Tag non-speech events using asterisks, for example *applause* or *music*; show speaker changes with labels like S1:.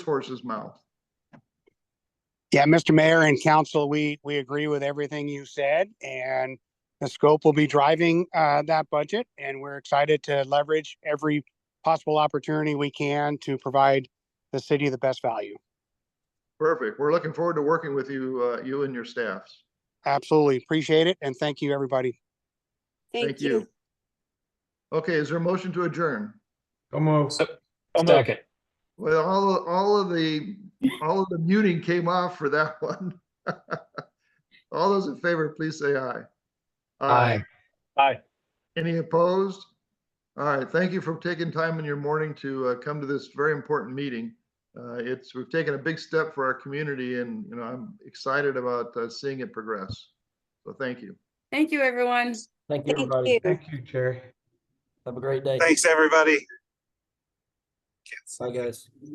S1: horse's mouth.
S2: Yeah, Mr. Mayor and council, we, we agree with everything you said and the scope will be driving, uh, that budget. And we're excited to leverage every possible opportunity we can to provide the city the best value.
S1: Perfect. We're looking forward to working with you, uh, you and your staffs.
S2: Absolutely appreciate it. And thank you, everybody.
S1: Thank you. Okay, is there a motion to adjourn?
S3: Almost.
S4: Second.
S1: Well, all, all of the, all of the muting came off for that *laughs* one. All those in favor, please say aye.
S4: Aye.
S1: Any opposed? All right, thank you for taking time in your morning to uh, come to this very important meeting. Uh, It's, we've taken a big step for our community and, you know, I'm excited about uh, seeing it progress. So thank you.
S5: Thank you, everyone.
S3: Thank
S5: you, everybody.
S3: Thank you, Jerry.
S4: Have a great day.
S6: Thanks, everybody.
S4: Bye, guys.